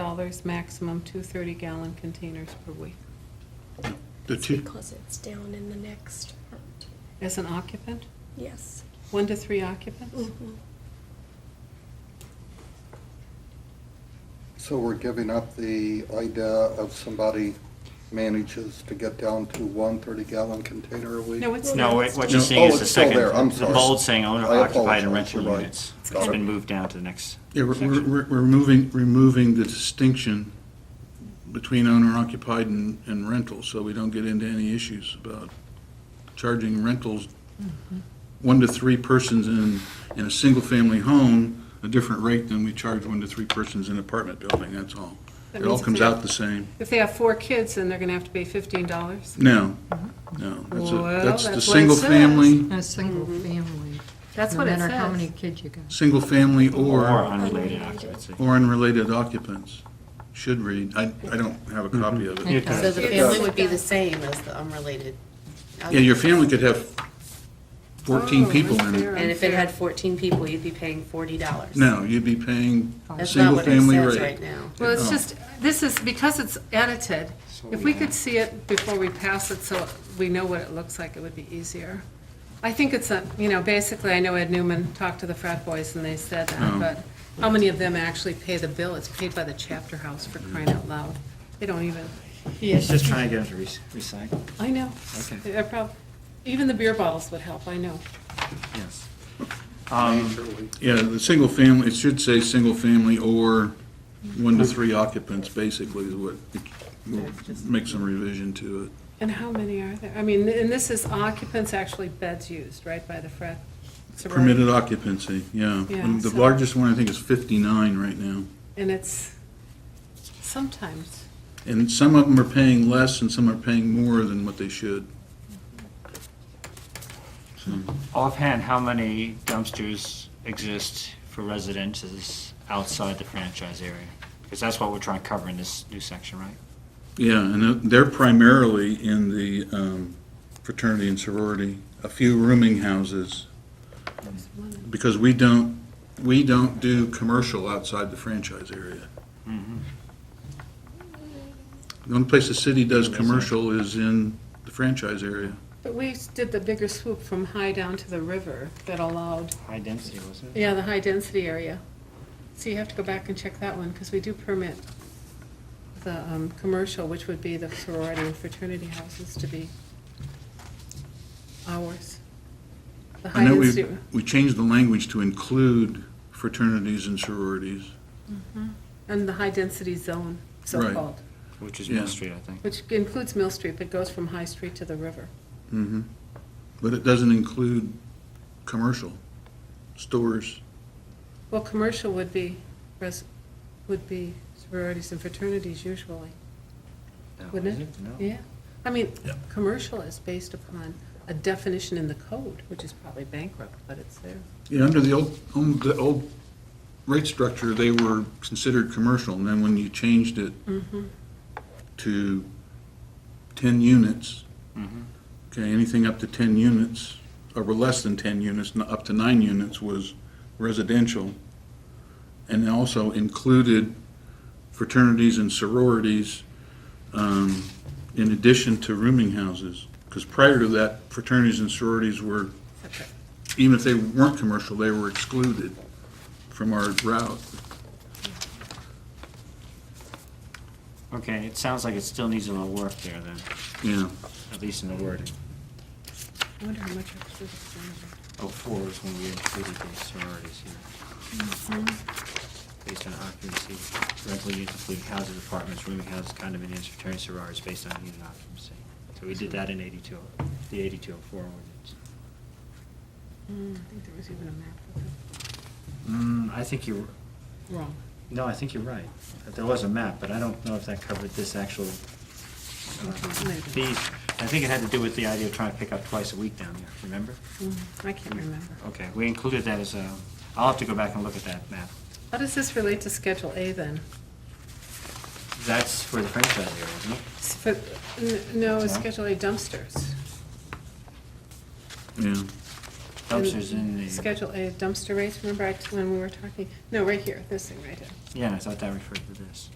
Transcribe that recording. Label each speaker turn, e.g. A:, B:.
A: dollars maximum, two 30-gallon containers per week.
B: The
C: It's
B: two,
C: Because it's down in the next part,
A: As an occupant,
C: yes.
A: one to three occupants?
B: Mm-hmm.
C: Mhm.
D: So we're giving up the idea of somebody manages to get down to one 30-gallon container a week?
A: No, it's
C: No,
A: not.
E: No,
C: it's
E: what what you're
D: still-
E: seeing
D: Oh,
E: is the
D: it's still
E: second,
D: there, I'm
E: the
D: sorry.
E: bold saying owner
D: I
E: occupied and
D: apologize,
E: rental
D: you're right.
E: units.
D: Got
E: It's
D: it.
E: been moved down to the next
B: yeah, we're, we're-
E: section.
B: we're, we're removing, removing the distinction between owner occupied and, and rental, so we don't get into any issues about charging rentals,
A: Mm-hmm.
B: one to three persons in, in a single-family home, a different rate than we charge one to three persons in an apartment building, that's all.
A: That
B: It all
A: means if
B: comes
A: they-
B: out the same.
A: If they have four kids, then they're going to have to pay $15.
B: No,
A: Mm-hmm.
B: no, that's a,
A: Well,
B: that's
A: that's what
B: the
A: it
B: single-family,
F: A single family.
A: Mm-hmm. That's what it
F: No matter how many
A: says.
F: kids you got.
B: single-family or,
E: Or unrelated
C: Unrelated.
E: occupancy.
B: or unrelated occupants, should read. I, I don't have a copy of it.
F: It does.
G: So the
A: It
G: family
A: does.
G: would be the same as the unrelated.
B: Yeah, your family could have 14
A: Oh,
B: people in
A: unfair,
B: it.
G: And if it had
A: unfair.
G: fourteen people, you'd be paying forty dollars.
B: No, you'd be paying
G: That's not what it
B: single-family
G: says right
B: rate.
G: now.
A: Well, it's
B: Oh.
A: just, this is, because it's edited,
E: So
A: if
E: we
A: we could
E: have-
A: see it before we pass it, so we know what it looks like, it would be easier. I think it's a, you know, basically, I know Ed Newman talked to the frat boys, and they said that,
B: Oh.
A: but how many of them actually pay the bill? It's paid by the chapter house, for crying out loud. They don't even,
E: He's just trying to get them to rec- recycle,
A: I know.
E: Okay.
A: They're prob- Even the beer bottles would help, I know.
E: yes.
B: Yeah, the single family, it should say single family or one to
G: Mm-hmm.
B: three occupants, basically, is what, we'll make some revision to it.
A: And how many are there? I mean, and this is occupants, actually beds used, right, by the frat? sorority?
B: Permitted occupancy, yeah.
A: Yeah,
B: And The
A: so-
B: largest one, I think, is 59 right now.
A: And it's sometimes,
B: And some of them are paying less and some are paying more than what they should.
E: Offhand, how many dumpsters exist for residences outside the franchise area? Because that's what we're trying to cover in this new section, right?
B: Yeah, and they're primarily in the um, fraternity and sorority, a few rooming houses. Because we don't, we don't do commercial outside the franchise area. The only place the city does commercial is in the franchise area.
A: but we did the bigger swoop from high down to the river that allowed,
E: High density, wasn't it?
A: yeah, the high-density area. So you have to go back and check that one, because we do permit the um, commercial, which would be the sorority and fraternity houses, to be ours. The
B: I know we,
A: high-density,
B: we changed the language to include fraternities and sororities.
A: and the high-density zone, so-called,
E: Which is
B: Yeah.
E: Mill Street, I think.
A: which includes Mill Street, but goes from High Street to the river.
B: Mhm. But it doesn't include commercial, stores.
A: Well, commercial would be, res- would be sororities and fraternities usually,
E: No,
A: wouldn't it?
E: is No.
A: Yeah. I mean, commercial is based upon a definition in the code, which is probably bankrupt, but it's there.
B: Yeah, under the old, um, the old rate structure, they were considered commercial, and then when you changed it to ten units, okay, anything up to ten units, or were less than ten units, n- up to nine units was residential, and it also included fraternities and sororities, um, in addition to rooming houses, because prior to that, fraternities and sororities were even if they weren't commercial, they were excluded from our route.
E: Okay, it sounds like it still needs a little work there then,
B: Yeah,
E: at least in the wording.
A: I wonder how much extra is in there.
E: Oh, four is when we included the sororities here.
A: Mm,
E: Based on occupancy, rental units including houses, apartments, rooming houses, condominiums, fraternity sororities, based on unit occupancy. So we did that in eighty-two, the eighty-two oh four ordinance.
A: Hmm, I think there was even a map of it.
E: Mm, I think you're,
A: Wrong.
E: no, I think you're right. There was a map, but I don't know if that covered this actual, uh,
A: Maybe.
E: fees. I think it had to do with the idea of trying to pick up twice a week down there, remember?
A: Hmm, I can't remember.
E: Okay, we included that as a, I'll have to go back and look at that map.
A: How does this relate to Schedule A then?
E: That's for the franchise area, isn't it?
A: S- but, n- No, it's
E: Sorry?
A: Schedule A dumpsters.
B: yeah.
E: Dumpsters in the,
A: Schedule A dumpster rates, remember I t- when we were talking, no, right here, this thing right here.
E: yeah, and I thought that referred to this.